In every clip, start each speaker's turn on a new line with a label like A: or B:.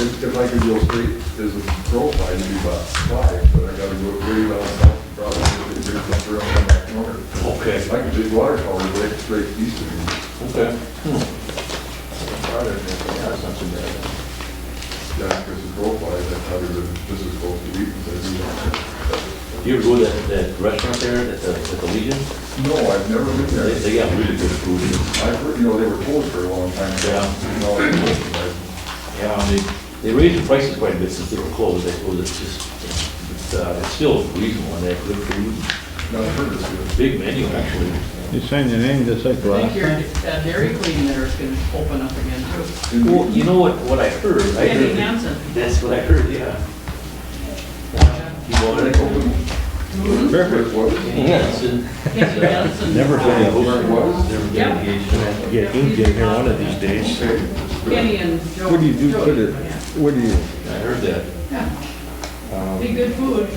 A: If if I could go straight as a profile, you'd be about five, but I gotta go way down south, and probably get the bridge up around the back corner.
B: Okay,
A: I could do water tower right straight east of me.
B: okay.
A: Yeah, because the profile, that's how you're, this is close to Wheaton's, I
B: You ever go to that, that restaurant there at the, at the Legion?
A: do. No, I've never been
B: They,
A: there.
B: they got really good food.
A: I've heard, you know, they were closed for a long time.
B: Yeah.
A: You know, I-
B: Yeah, and they, they raised the prices quite a bit since they were closed, I suppose it's just, it's, uh, it's still reasonable, and they have good food,
A: I've heard this, yeah.
B: big menu actually.
C: You sign your name just like
D: I think
C: last.
D: your uh, Dairy Queen there is going to open up again too.
B: Well, you know what, what I heard, I
D: Andy
B: heard,
D: Hansen.
B: that's what I heard, yeah. You
A: Well,
B: want
A: they
B: it?
A: opened,
B: Mm-hmm.
A: where it was.
B: Yes.
D: Andy Hansen.
C: Never heard of
A: Where it was.
B: Never
D: Yeah.
B: get engaged.
E: Get inked in here one of these days.
A: Okay.
D: Kenny and Joe.
C: What do you do,
D: Joey,
C: put it,
D: yeah.
C: what do you,
B: I heard that.
D: Yeah,
E: Um,
D: be good food.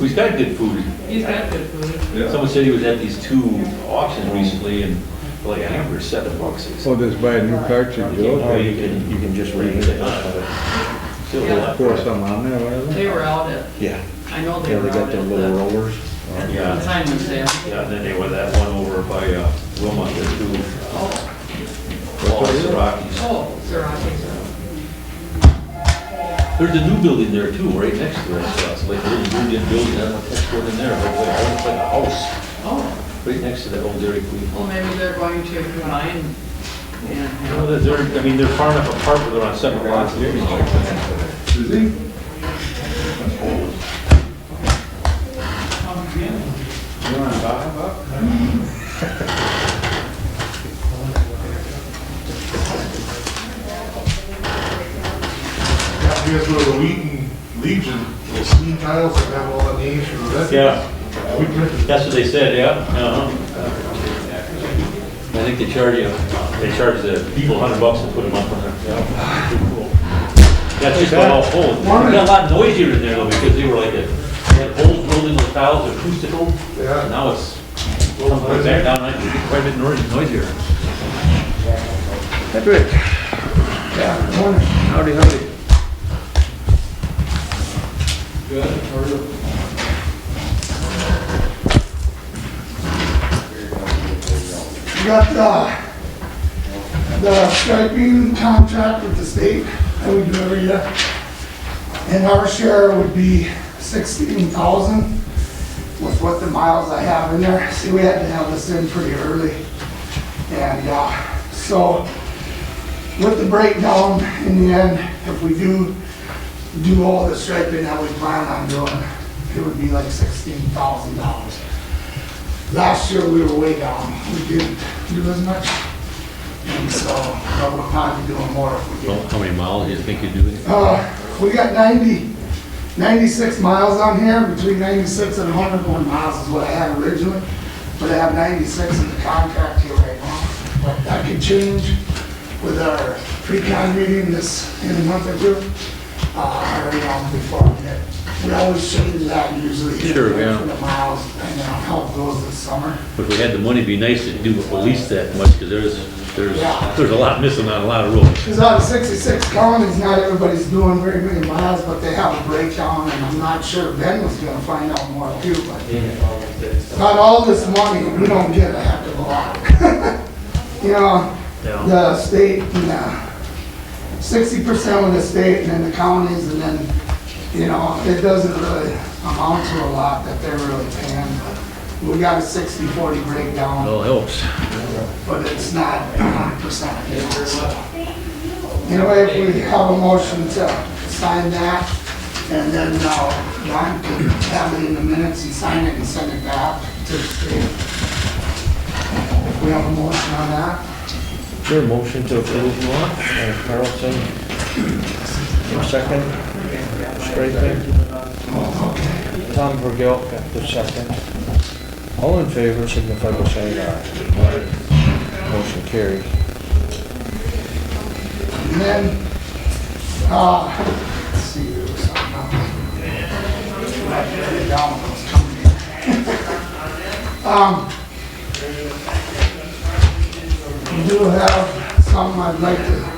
B: We've got good food.
D: He's got good food.
A: Yeah.
B: Someone said he was at these two auctions recently and like a hamburger seven bucks. It's-
C: oh, just buy a new cartridge,
B: You know,
C: okay,
B: you can,
E: You can just
B: you
E: read
B: can
E: it.
B: say, "Ah, but still a lot."
C: pour some on there,
D: They
C: whatever.
D: were out at,
E: Yeah,
D: I know they
E: yeah,
D: were
E: they
D: out
E: got
D: at
E: them
D: the
E: little rollers.
D: at the
B: Yeah.
D: consignment sale.
B: Yeah, and then they were that one over by uh, Wilmot, the two
D: Oh,
B: Wallace Rockies.
D: oh, Sirachi.
B: There's a new building there too, right next to us, uh, it's like a little Indian building, I don't know what's going in there, but like, it's like a house,
D: Oh,
B: right next to that old Dairy Queen.
D: well, maybe they're going to combine and
B: You know,
D: have.
B: they're, they're- I mean, they're far enough apart where they're on separate lots and everything like that.
A: Is he?
D: Oh, yeah.
F: Yeah, you guys go to the Wheaton Legion, those screen tiles that have all the names for the veterans.
B: Yeah.
F: We printed
B: That's what they said, yeah, uh-huh. I think they charge you, they charge the people a hundred bucks to put them up on there. Yeah. That's just about all holes. It got a lot noisier in there though, because they were like, a- they had holes drilled in those tiles, acoustical.
F: Yeah.
B: Now it's, well, it's back down, and it's quite a bit noisy- noisier.
C: Patrick. Howdy, howdy.
G: We got the, the striping contract with the state that we do every year. And our share would be sixteen thousand with what the miles I have in there. See, we had to have this in pretty early. And, uh, so with the breakdown in the end, if we do do all the striping that we plan on doing, it would be like sixteen thousand dollars. Last year, we were way down. We didn't do as much. And so, but we're probably doing more if we get.
B: How many miles do you think you do?
G: Uh, we got 90, 96 miles on here, between 96 and 101 miles is what I had originally. But I have 96 in the contract here right now. But that could change with our pre-con meeting this, in a month or two. Uh, or, you know, before we get, we always change that usually. here
B: Sure, yeah.
G: For the miles, and then how it goes this summer.
B: If we had the money, it'd be nice to do at least that much, because there's,
G: Yeah.
B: there's a lot missing on a lot of roads.
G: Because out of 66 counties, not everybody's doing very many miles, but they have a breakdown, and I'm not sure Ben was gonna find out more too, but not all this money, we don't get a heck of a lot. You know, the state, and, uh, 60% of the state, and then the counties, and then, you know, it doesn't really amount to a lot that they're really paying, but we got a 60/40 breakdown
B: All helps.
G: but it's not hundred percent. Anyway, if we have a motion to sign that, and then now Ron can have it in the minutes and sign it and send it back to the state. We have a motion on that.
E: Sure, motion to approve, uh, Carlson. Second, Straker. Tom Vergil, the second. All in favor, signify by saying aye. Motion carries.
G: And then, uh, let's see, there was something else. I put it down when I was coming in. Um, we do have some I'd like to